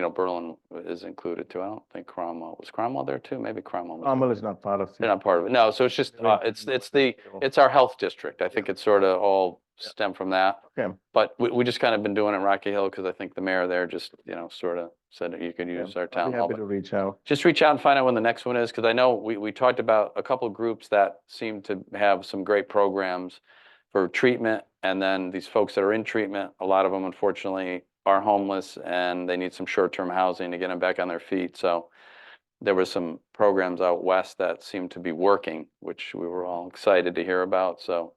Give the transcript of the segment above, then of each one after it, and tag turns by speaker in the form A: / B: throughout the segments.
A: you know, Berlin is included too. I don't think Cromwell, was Cromwell there too? Maybe Cromwell. was there.
B: Cromwell is not part of.
A: They're not part of it. No, so it's just,
B: Really?
A: uh, it's, it's the,
B: Sure.
A: it's our health district. I think it's sort of all stemmed from that.
B: Okay.
A: But we, we just kind of been doing it in Rocky Hill because I think the mayor there just, you know, sort of said that you could
B: Yeah,
A: use our
B: I'll be
A: town hall.
B: Happy
A: but
B: to reach out.
A: Just reach out and find out when the next one is, because I know we, we talked about a couple of groups that seem to have some great programs for treatment. And then these folks that are in treatment, a lot of them unfortunately are homeless and they need some short-term housing to get them back on their feet. So there were some programs out west that seemed to be working, which we were all excited to hear about, so.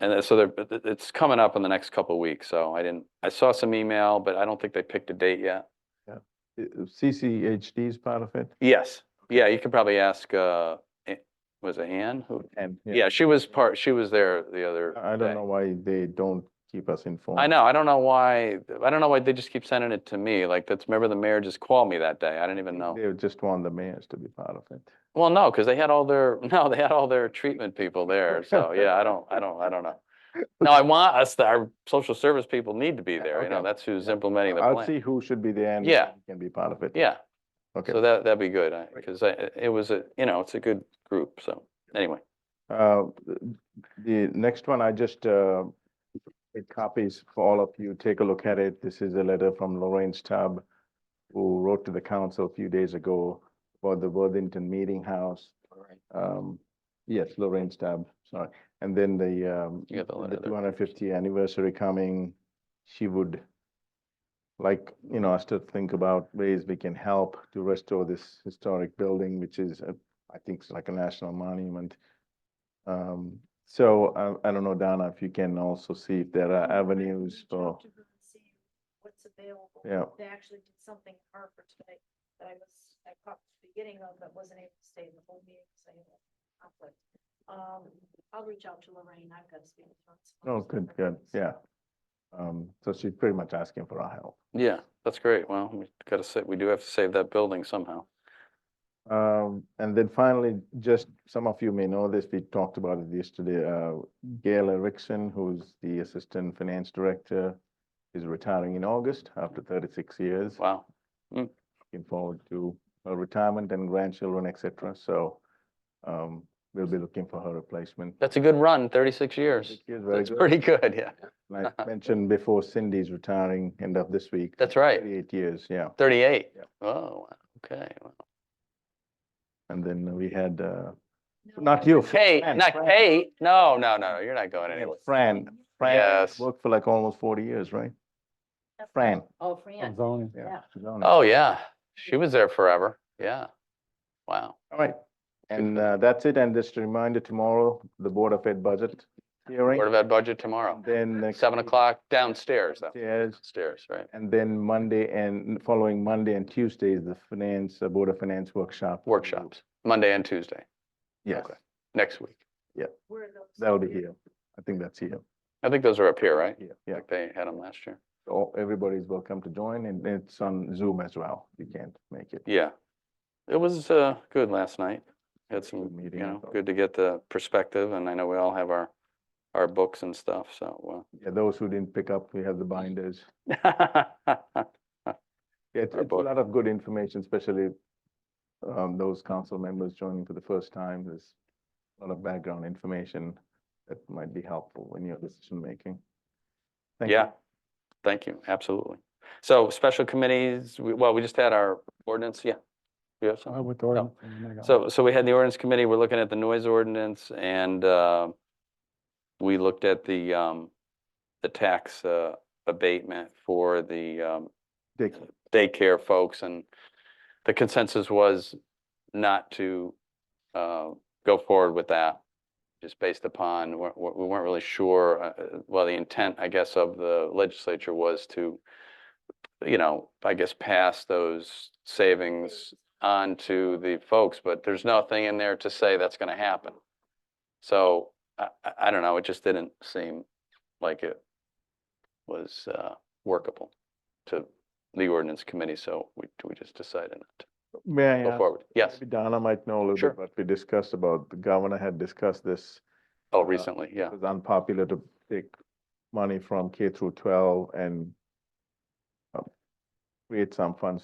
A: And then- so there, but it- it's coming up in the next couple of weeks, so I didn't, I saw some email, but I don't think they picked a date yet.
B: I- uh, CCHD is part of it?
A: Yes, yeah, you could probably ask, uh, A- was it Ann? who-
B: And.
A: Yeah, she was part, she was there the other
B: I I
A: day.
B: don't know why they don't keep us informed.
A: I know, I don't know why, I don't know why they just keep sending it to me, like, that's, remember the mayor just called me that day, I didn't even know.
B: They just want the mayors to be part of it.
A: Well, no, because they had all their, no, they had all their treatment people there, so, yeah, I don't, I don't, I don't know. No, I want us, to- our social service people need to be
B: Yeah,
A: there, you know,
B: okay.
A: that's who's implementing the
B: I'll
A: plan.
B: see who should be there and.
A: Yeah.
B: who Can be part of it.
A: Yeah,
B: Okay.
A: so that, that'd be good, because it was a, you know, it's a good group, so, anyway.
B: Uh, th- The next one, I just, uh, it copies for all of you. Take a look at it. This is a letter from Lorraine Stubb, who wrote to the council a few days ago about the Worthington Meeting House. Um, Yes, Lorraine Stubb, sorry. And then the, um,
A: You got the letter
B: the
A: there.
B: two hundred fifty anniversary coming, she would like, you know, us to think about ways we can help to restore this historic building, which is, a- I think it's like a national monument. Um, so I, I don't know, Donna, if you can also see if there are uh,
C: I will
B: avenues
C: reach
B: for,
C: out to her and see What's available.
B: Yeah.
C: They actually did something in Hartford today that I was, I caught the beginning of, but wasn't able to stay in the whole meeting, so I had a conflict. Um, I'll reach out to Lorraine, I've got to speak with her. on some
B: oh,
C: of these
B: good, good,
C: different
B: yeah.
C: things.
B: Um, so she's pretty much asking for our help.
A: Yeah, that's great. Well, we gotta say, we do have to save that building somehow.
B: Um, and then finally, just some of you may know this, we talked about it yesterday, uh, Gail Erickson, who's the Assistant Finance Director, is retiring in August after thirty-six years,
A: Wow.
B: looking forward to her retirement and grandchildren, et cetera, so, um, we'll be looking for her replacement.
A: That's a good run, thirty-six years.
B: She is very
A: That's
B: good.
A: pretty good, yeah.
B: And I mentioned before Cindy's retiring end of this week.
A: That's right,
B: Thirty-eight years, yeah.
A: thirty-eight.
B: Yeah.
A: Oh, wow. okay. wow.
B: And then we had, uh,
C: No,
B: Not
C: I
B: you.
C: will-
A: Kate,
B: Fran,
A: not
B: Fran.
A: Kate. No, no, no, you're not going
B: we had
A: anywhere.
B: Fran, Fran
A: Yes.
B: worked for like almost forty years, right?
C: That's-
B: Fran.
C: Oh, Fran.
D: Zoning.
C: Yeah.
B: she's on it.
A: Oh, yeah. She was there forever. Yeah. Wow.
B: All right, and
A: for
B: uh, that's it, and just a reminder, tomorrow, the Board of Ed budget
A: Board
B: hearing.
A: of Ed budget tomorrow,
B: Then. next
A: seven
B: week,
A: o'clock downstairs, though.
B: Yes,
A: Upstairs, right?
B: and then Monday and following Monday and Tuesday is the finance, uh, Board of Finance workshop.
A: Workshops,
B: Mm-hmm.
A: Monday and Tuesday,
B: Yes,
A: Okay. next week.
C: Where are those?
B: that'll be here, I think that's here,
A: I think those are up here, right?
B: yeah, yeah,
A: Like they had them last year.
B: all, everybody's welcome to join, and it's on Zoom as well, if you can't make it.
A: Yeah. It was uh, good last night. Had
B: It's a good
A: some, you
B: meeting, I
A: know,
B: thought.
A: good to get the perspective, and I know we all have our, our books and stuff, so.
B: Yeah, those who didn't pick up, we have the binders,
A: uh,
B: Yeah, it's
A: Our
B: it's a
A: book.
B: lot of good information, especially um, those council members joining for the first time. There's a lot of background information that might be helpful in your decision making. Thank you.
A: Yeah, thank you, absolutely. So special committees, we- well, we just had our ordinance, yeah. You have
B: Oh,
A: something?
D: I went to Oregon a minute ago.
A: So, so we had the ordinance committee, we're looking at the noise ordinance and uh, we looked at the, um, the tax uh, abatement for the um,
B: Dick,
A: daycare folks, and the consensus was not to uh, go forward with that, just based upon, we we- we weren't really sure, uh, uh, well, the intent, I guess, of the legislature was to, you know, I guess, pass those savings on to the folks, but there's nothing in there to say that's going to happen. So I, I- I don't know, it just didn't seem like it was uh, workable to the ordinance committee, so we, we just decided not
B: may I
A: to go
B: ask?
A: forward. Yes,
B: maybe Donna might know a little
A: Sure.
B: bit, what we discussed about, the governor had discussed this.
A: oh, recently, yeah.
B: It was unpopular to take money from K through twelve and um, create some funds